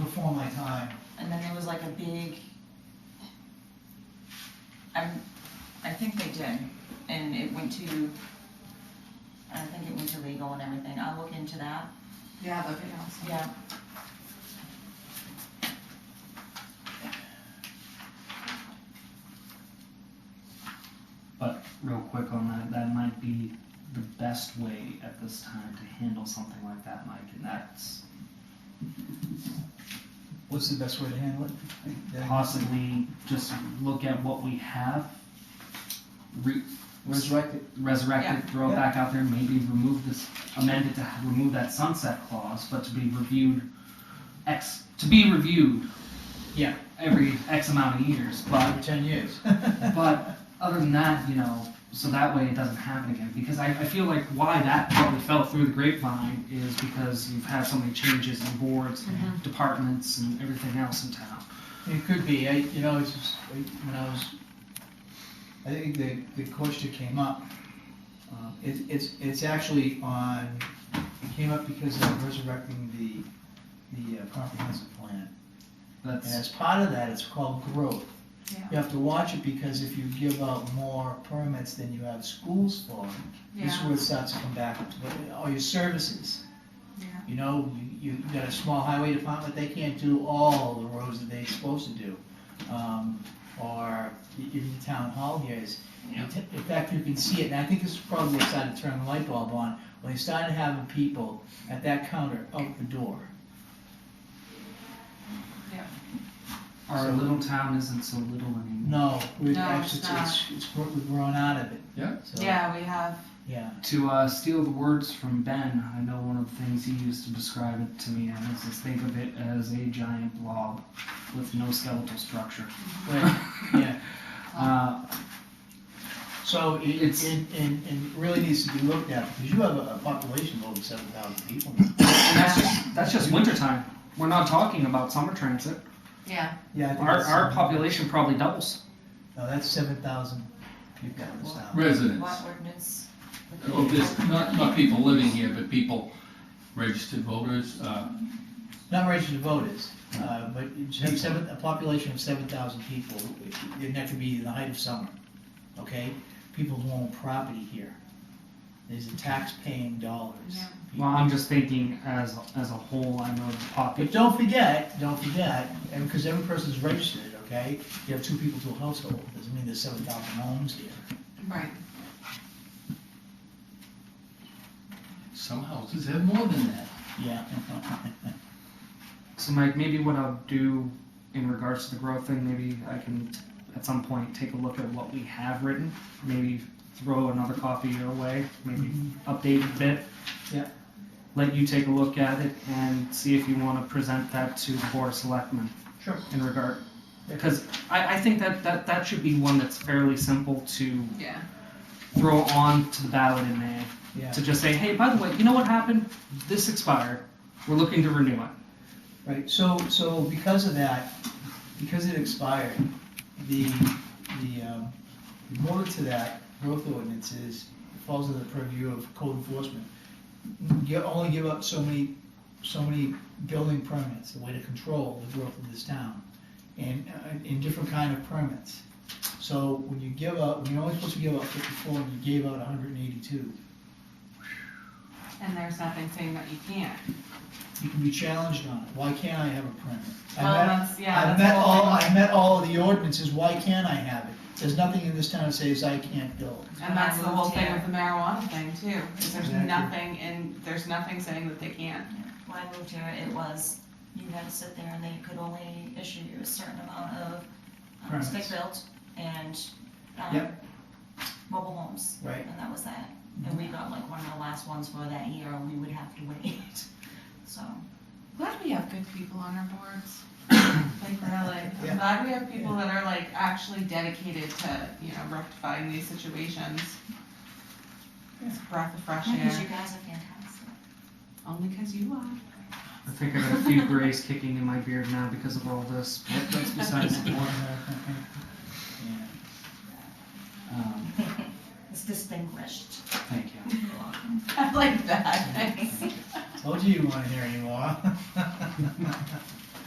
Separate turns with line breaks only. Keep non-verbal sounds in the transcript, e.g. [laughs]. my time.
And then there was like a big, I'm, I think they did, and it went to, I think it went to legal and everything, I'll look into that,
Yeah, that'd be awesome.
yeah.
real quick on that, that might be the best way at this time to handle something like that, Mike, and that's
What's the best way to handle it? That-
possibly just look at what we have, re-
Resurrect it.
resurrect it, throw it
Yeah.
back out there, maybe remove this, amend it to ha- remove that sunset clause, but to be reviewed X, to be reviewed, yeah, every X amount of years, but
Every ten [laughs] years.
But other than that, you know, so that way it doesn't happen again. Because I, I feel like why that probably fell through the grapevine is because you've had so many changes in boards, and departments, and everything else in town.
It could be, I, you know, it's just, I- when I was, I think the, the question came up, uh, it, it's, it's actually on, it came up because of resurrecting the, the uh, comprehensive plan. And
That's
as part of that, it's called growth.
Yeah.
You have to watch it because if you give out more permits than you have schools for, this is
Yeah.
where it starts to come back, to all your services.
Yeah.
You know, you, you got a small highway department, they can't do all the roads that they're supposed to do. Um, or e- even the town hall here is,
Yeah.
in fact, you can see it, and I think this is probably what started to turn the light bulb on, when they started having people at that counter out the door.
our little town isn't so little anymore.
No, we're
No,
actually,
it's
it's, it's, gr- we've grown out of it.
Yeah.
So,
Yeah, we have,
Yeah,
To uh, steal the words from Ben, I know one of the things he used to describe it to me as is think of it as a giant blob with no skeletal structure.
Right. yeah,
Uh,
so it, it,
It's-
it, it really needs to be looked at, because you have a, a population of over seven thousand people now.
And that's just, that's just wintertime. We're not talking about summer transit.
yeah,
Yeah, I think
Our,
it's-
our population probably doubles.
No, that's seven thousand people in this town.
residents,
Lot ordinance.
oh, this, not, not people living here, but people, registered voters, uh,
Not registered voters, uh, but you should have seven, a population of seven thousand people, and that could be the height of summer, okay? People who own property here. These are tax-paying dollars.
Yeah.
Well, I'm just thinking as as a whole. I know the
But
population.
don't forget, don't forget, and because every person's registered, okay? You have two people to a household, doesn't mean there's seven thousand homes here.
right.
some houses have more than that.
Yeah. [laughs]
So, Mike, maybe what I'll do in regards to the growth thing, maybe I can at some point take a look at what we have written. Maybe throw another copy your way. Maybe update it a bit.
Mm-hmm. Yeah.
Let you take a look at it and see if you want to present that to the board of selectmen.
Sure.
in regard because I, I think that, that that should be one that's fairly simple to
Yeah.
throw on to the ballot in May
Yeah,
to just say, hey, by the way, you know what happened? This expired. We're looking to renew it.
right, so, so because of that, because it expired, the, the, um, the motor to that growth ordinance is, falls under the purview of code enforcement. You only give up so many, so many building permits, the way to control the growth of this town, and, uh, and different kind of permits. So when you give up, when you're only supposed to give out fifty-four, and you gave out hundred and eighty-two,
And there's nothing saying that you can't.
you can be challenged on it, why can't I have a permit? I
Well,
met-
that's, yeah,
I
that's.
met
the whole
all,
thing.
I met all of the ordinances, why can't I have it? There's nothing in this town that says I can't build.
And that's the whole thing
When I
with the marijuana thing too, is there's
Exactly.
nothing in, there's nothing saying that they can't.
When I moved here, it was, you had to sit there and they could only issue you a certain amount of um,
Permits.
stick built and, um,
Yep.
mobile homes,
[laughs]
Right.
and that was that. And we got like one of the last ones for that year, and we would have to wait, [laughs] so.
Glad we have good people on our
[coughs]
boards. Like really,
Yeah.
I'm glad we have people that are like actually dedicated to, you know, rectifying these situations. It's a breath of fresh
Because you
air,
guys are fantastic.
only because you [laughs] are.
I think I got a few [laughs] grays kicking in my beard now because of all this, but that's besides the point. Um,
[laughs] It's distinguished.
thank you.
I like that, thanks. [laughs]
[laughs] Told you you weren't here anymore.